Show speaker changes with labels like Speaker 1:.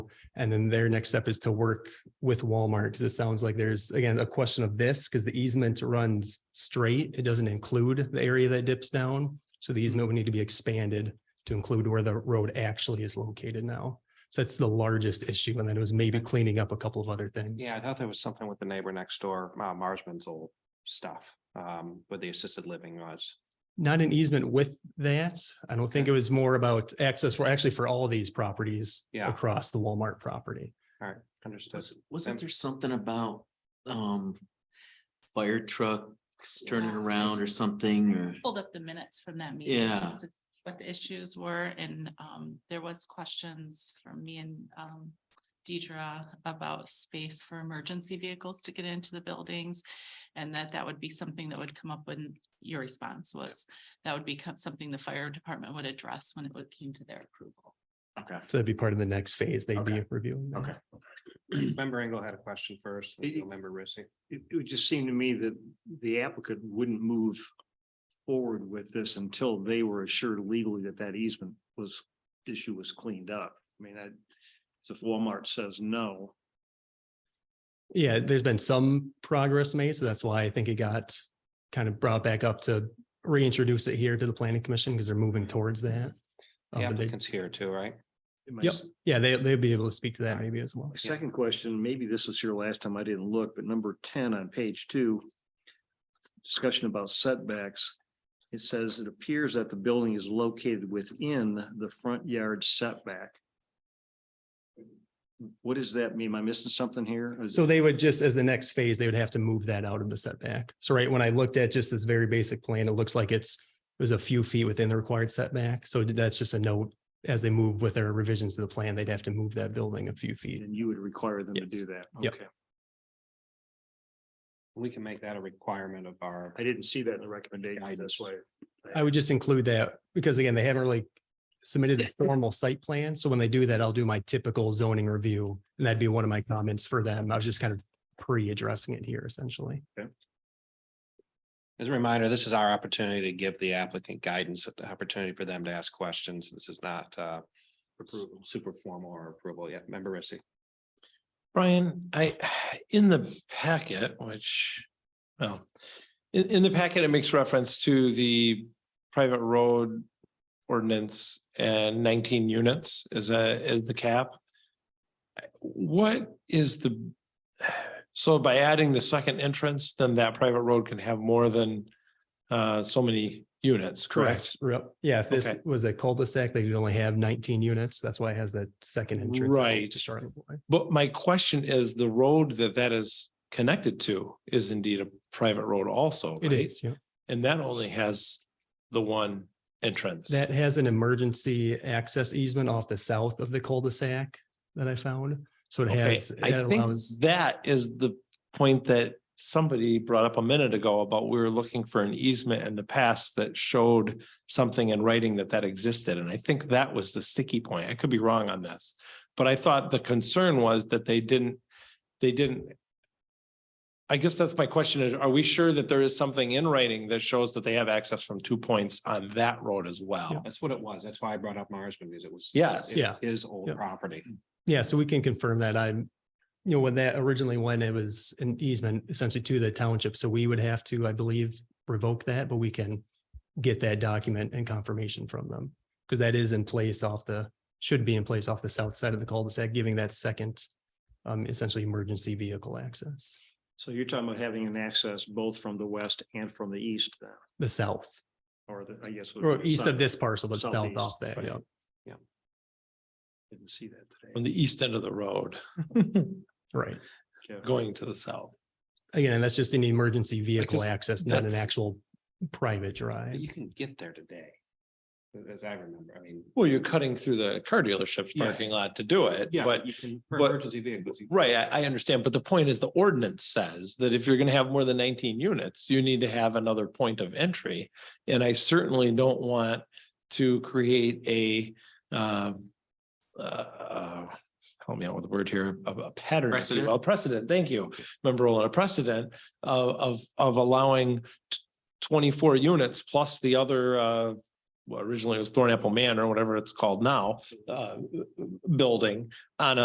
Speaker 1: And then their next step is to work with Walmart, because it sounds like there's, again, a question of this, because the easement runs straight. It doesn't include the area that dips down. So the easement would need to be expanded to include where the road actually is located now. So that's the largest issue. And then it was maybe cleaning up a couple of other things.
Speaker 2: Yeah, I thought there was something with the neighbor next door, uh, Marsman's old stuff, um, where the assisted living was.
Speaker 1: Not an easement with that. I don't think it was more about access. We're actually for all these properties
Speaker 2: Yeah.
Speaker 1: across the Walmart property.
Speaker 2: All right, understood.
Speaker 3: Was, wasn't
Speaker 2: and-
Speaker 3: there something about, um, fire trucks turning
Speaker 4: Yeah.
Speaker 3: around or something or?
Speaker 4: Pulled up the minutes from that meeting.
Speaker 3: Yeah.
Speaker 4: just to see What the issues were and um there was questions from me and um Deidra about space for emergency vehicles to get into the buildings. And that that would be something that would come up when your response was, that would become something the fire department would address when it would- came to their approval.
Speaker 3: Okay.
Speaker 1: So that'd be part of the next phase they'd be
Speaker 2: Okay.
Speaker 1: reviewing. that.
Speaker 3: Okay.
Speaker 2: Member Engel had a question first, and
Speaker 5: Y- y-
Speaker 2: member Rissy.
Speaker 5: It, it would just seem to me that the applicant wouldn't move forward with this until they were assured legally that that easement was, issue was cleaned up. I mean, I, so if Walmart says no,
Speaker 1: Yeah, there's been some progress made, so that's why I think it got kind of brought back up to reintroduce it here to the planning commission because they're moving towards that. Uh, but
Speaker 2: The
Speaker 1: they-
Speaker 2: applicant's here too, right?
Speaker 5: it might
Speaker 1: Yep, yeah, they, they'll be able to speak to that maybe as well.
Speaker 5: My Second question, maybe this was here last time, I didn't look, but number ten on page two. Discussion about setbacks. It says it appears that the building is located within the front yard setback. What does that mean? Am I missing something here? Is-
Speaker 1: So they would just, as the next phase, they would have to move that out of the setback. So right, when I looked at just this very basic plan, it looks like it's, it was a few feet within the required setback. So that's just a note. As they move with their revisions to the plan, they'd have to move that building a few feet.
Speaker 5: And you would require them to
Speaker 1: Yes.
Speaker 5: do that.
Speaker 1: Yep.
Speaker 5: Okay,
Speaker 2: We can make that a requirement of our,
Speaker 5: I didn't see that in the recommendation, that's why.
Speaker 1: I would just include that because again, they haven't really submitted a formal site plan. So when they do that, I'll do my typical zoning review. And that'd be one of my comments for them. I was just kind of pre-addressing it here essentially.
Speaker 2: as a reminder, this is our opportunity to give the applicant guidance, the opportunity for them to ask questions. This is not, uh, super formal or approval yet. Member Rissy.
Speaker 6: Brian, I, in the packet, which, well, in, in the packet, it makes reference to the private road ordinance and nineteen units is a, is the cap. What is the, so by adding the second entrance, then that private road can have more than uh, so many units, correct?
Speaker 1: Yep. Yeah, if this
Speaker 6: Okay.
Speaker 1: was a cul-de-sac, they could only have nineteen units. That's why it has that second entrance. out
Speaker 6: Right.
Speaker 1: To Charlotte Boy.
Speaker 6: But my question is, the road that that is connected to is indeed a private road also,
Speaker 1: It
Speaker 6: right?
Speaker 1: is, yeah.
Speaker 6: And that only has the one entrance.
Speaker 1: That has an emergency access easement off the south of the cul-de-sac that I found. So it
Speaker 6: Okay,
Speaker 1: has,
Speaker 6: I
Speaker 1: that
Speaker 6: think
Speaker 1: allows,
Speaker 6: that is the point that somebody brought up a minute ago about we were looking for an easement in the past that showed something in writing that that existed. And I think that was the sticky point. I could be wrong on this. But I thought the concern was that they didn't, they didn't. I guess that's my question is, are we sure that there is something in writing that shows that they have access from two points on that road as well?
Speaker 2: That's what it was. That's why I brought up Marsman because it was.
Speaker 6: Yes.
Speaker 2: it was
Speaker 1: Yeah.
Speaker 2: His old
Speaker 1: Yep.
Speaker 2: property.
Speaker 1: yeah, so we can confirm that I'm, you know, when that originally, when it was an easement essentially to the township, so we would have to, I believe, revoke that, but we can get that document and confirmation from them, because that is in place off the, should be in place off the south side of the cul-de-sac, giving that second um, essentially emergency vehicle access,
Speaker 5: So you're talking about having an access both from the west and from the east then,
Speaker 1: the south,
Speaker 5: or the, I guess. would be
Speaker 1: or
Speaker 5: the
Speaker 1: east
Speaker 5: south.
Speaker 1: of this parcel, but south
Speaker 5: Southeast,
Speaker 1: off that,
Speaker 5: right.
Speaker 1: yeah.
Speaker 5: Didn't see that today.
Speaker 6: From the east end of the road,
Speaker 1: Right.
Speaker 5: Okay.
Speaker 6: going to the south.
Speaker 1: Again, and that's just an emergency vehicle
Speaker 6: Because
Speaker 1: access, not an
Speaker 6: that's-
Speaker 1: actual private drive.
Speaker 2: But you can get there today. As I remember, I mean.
Speaker 6: Well, you're cutting through the car dealership's
Speaker 2: Yeah.
Speaker 6: parking lot to do it,
Speaker 2: Yeah,
Speaker 6: but,
Speaker 2: you can, for
Speaker 6: but-
Speaker 2: emergency vehicles. you-
Speaker 6: right, I, I understand, but the point is the ordinance says that if you're gonna have more than nineteen units, you need to have another point of entry. And I certainly don't want to create a, um, uh, help me out with the word here, a, a pattern. if you
Speaker 3: Precedent.
Speaker 6: will, Precedent, thank you, member Roland, a precedent of, of, of allowing t- twenty-four units plus the other, uh, well, originally it was Thornapple Manor, whatever it's called now, uh, building on a